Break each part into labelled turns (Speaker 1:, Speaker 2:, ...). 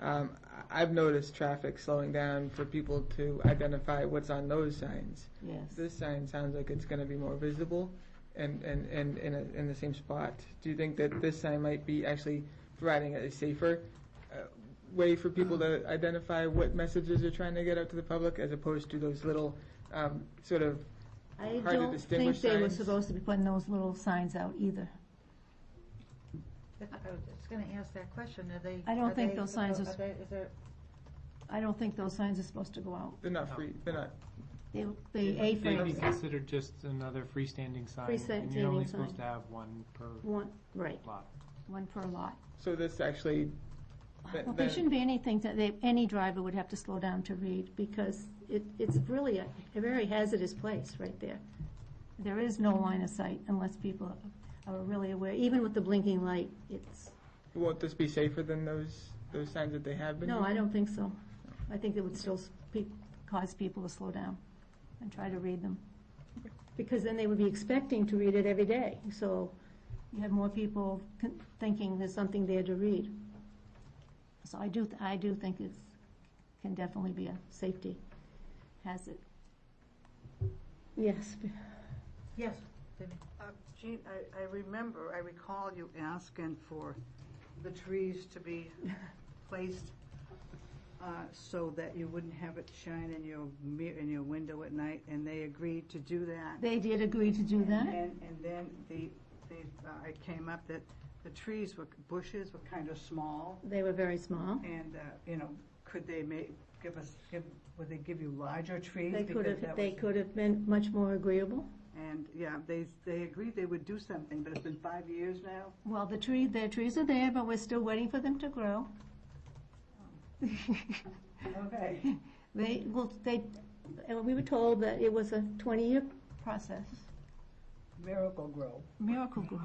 Speaker 1: Um, I've noticed traffic slowing down for people to identify what's on those signs.
Speaker 2: yes.
Speaker 1: This sign sounds like it's gonna be more visible and, and, and in, a- in the same spot. Do you think that this sign might be actually providing a safer uh, way for people to identify what messages are trying to get out to the public as opposed to those little, um, sort of,
Speaker 2: I
Speaker 1: Hard to
Speaker 2: don't
Speaker 1: distinguish
Speaker 2: think they were
Speaker 1: signs.
Speaker 2: supposed to be putting those little signs out either.
Speaker 3: That- I was just going to ask that question, are they?
Speaker 2: I don't
Speaker 3: are
Speaker 2: think
Speaker 3: they-
Speaker 2: those signs
Speaker 3: are
Speaker 2: is-
Speaker 3: they- Is there,
Speaker 2: I don't think those signs are supposed to go out.
Speaker 1: they're not free, they're not,
Speaker 2: They, they
Speaker 4: They'd be
Speaker 2: A-frames,
Speaker 4: considered just another freestanding sign. And you're
Speaker 2: Freestanding
Speaker 4: only
Speaker 2: sign.
Speaker 4: supposed to have one per
Speaker 2: one, right,
Speaker 4: lot.
Speaker 2: one per lot.
Speaker 1: so this actually. th-
Speaker 2: Well, there
Speaker 1: then-
Speaker 2: shouldn't be anything that they, any driver would have to slow down to read, because it, it's really a, a very hazardous place right there. There is no line of sight unless people are really aware, even with the blinking light, it's,
Speaker 1: Won't this be safer than those, those signs that they have been?
Speaker 2: no,
Speaker 1: using?
Speaker 2: I don't think so. I think it would still s- pe- cause people to slow down and try to read them. Because then they would be expecting to read it every day, so you have more people con- thinking there's something there to read. So I do, th- I do think it's, can definitely be a safety hazard. Yes, b-
Speaker 3: yes,
Speaker 5: Uh, Jean, I, I remember, I recall you asking for the trees to be placed uh, so that you wouldn't have it shine in your mirror, in your window at night, and they agreed to do that.
Speaker 2: they did agree to do that.
Speaker 5: And, and then the, the, uh, it came up that the trees were, bushes were kind of small,
Speaker 2: They were very small.
Speaker 5: and, uh, you know, could they make, give us, give, would they give you larger trees?
Speaker 2: They could
Speaker 5: Because that
Speaker 2: have, they
Speaker 5: was-
Speaker 2: could have been much more agreeable.
Speaker 5: And, yeah, they, they agreed they would do something, but it's been five years now.
Speaker 2: Well, the tree, the trees are there, but we're still waiting for them to grow.
Speaker 5: Okay.
Speaker 2: They, well, they, and we were told that it was a twenty-year process.
Speaker 5: Miracle Grow.
Speaker 2: Miracle grow.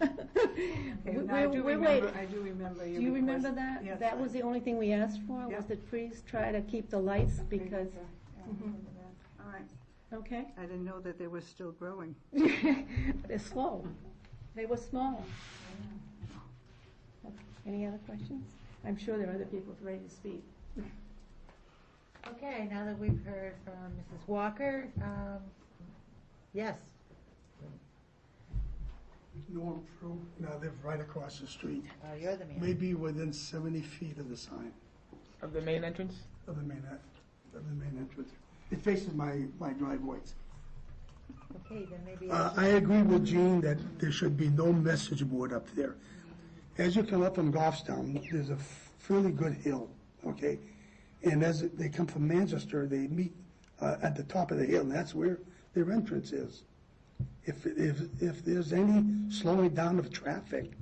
Speaker 5: Okay, now I
Speaker 2: We're,
Speaker 5: do
Speaker 2: we're
Speaker 5: remember-
Speaker 2: waiting.
Speaker 5: I do remember you.
Speaker 2: Do you remember
Speaker 5: request-
Speaker 2: that?
Speaker 5: Yes.
Speaker 2: That was the only thing we asked for,
Speaker 5: Yeah.
Speaker 2: was that trees try to keep the lights because,
Speaker 5: Yeah, I
Speaker 2: Mhm.
Speaker 5: remember that. All right,
Speaker 2: okay?
Speaker 5: I didn't know that they were still growing.
Speaker 2: They're slow. They were small. Okay, Any other questions? I'm sure there are other people ready to speak.
Speaker 3: okay, now that we've heard from Mrs. Walker, um, yes,
Speaker 6: Norm Prue, now they're right across the street,
Speaker 3: uh, you're the man.
Speaker 6: maybe within seventy feet of the sign,
Speaker 1: Of the main entrance?
Speaker 6: of the main, en- of the main entrance. It faces my, my driveways.
Speaker 3: Okay, then maybe,
Speaker 6: Uh, I agree with Gene that there should be no message board up there. As you come up from Goffstown, there's a fairly good hill, okay? And as they come from Manchester, they meet uh, at the top of the hill, and that's where their entrance is. If, if, if there's any slowing down of traffic,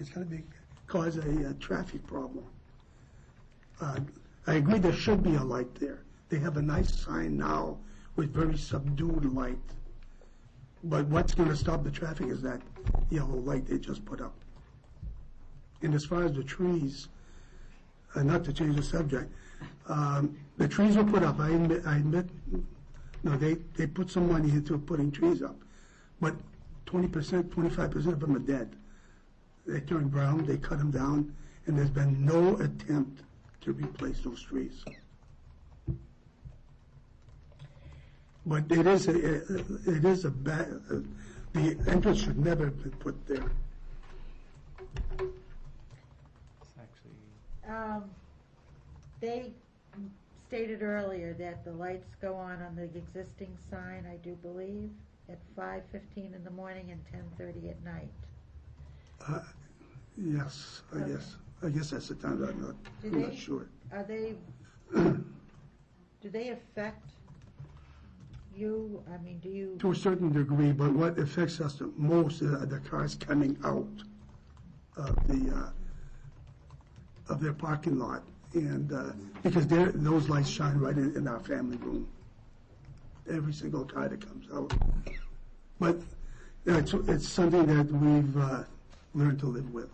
Speaker 6: it's gonna be, cause a, uh traffic problem. Uh, I agree there should be a light there. They have a nice sign now with very subdued light. But what's gonna stop the traffic is that yellow light they just put up. And as far as the trees, uh, not to change the subject, um, the trees were put up, I admit, I admit, no, they, they put some money into putting trees up. But twenty percent, twenty-five percent of them are dead. They turn brown, they cut them down, and there's been no attempt to replace those trees. But it is, a- it is a bad, the entrance should never have been put there.
Speaker 4: It's actually
Speaker 3: um, they stated earlier that the lights go on on the existing sign, I do believe, at five fifteen in the morning and ten thirty at night.
Speaker 6: Uh, Yes, I guess, I guess that's the time, I'm not,
Speaker 3: Do
Speaker 6: I'm
Speaker 3: they-
Speaker 6: not sure.
Speaker 3: Are they, do they affect you? I mean, do you?
Speaker 6: To a certain degree, but what affects us the most are the cars coming out of the, uh, of their parking lot. And, uh, because they're, those lights shine right in, in our family room. Every single car that comes out. But it's, it's something that we've, uh, learned to live with.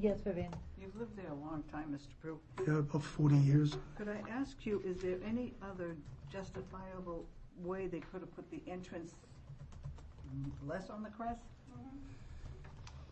Speaker 3: Yes, Vivian?
Speaker 5: You've lived there a long time, Mr. Prue.
Speaker 6: Yeah, about forty years.
Speaker 5: Could I ask you, is there any other justifiable way they could have put the entrance less on the crest?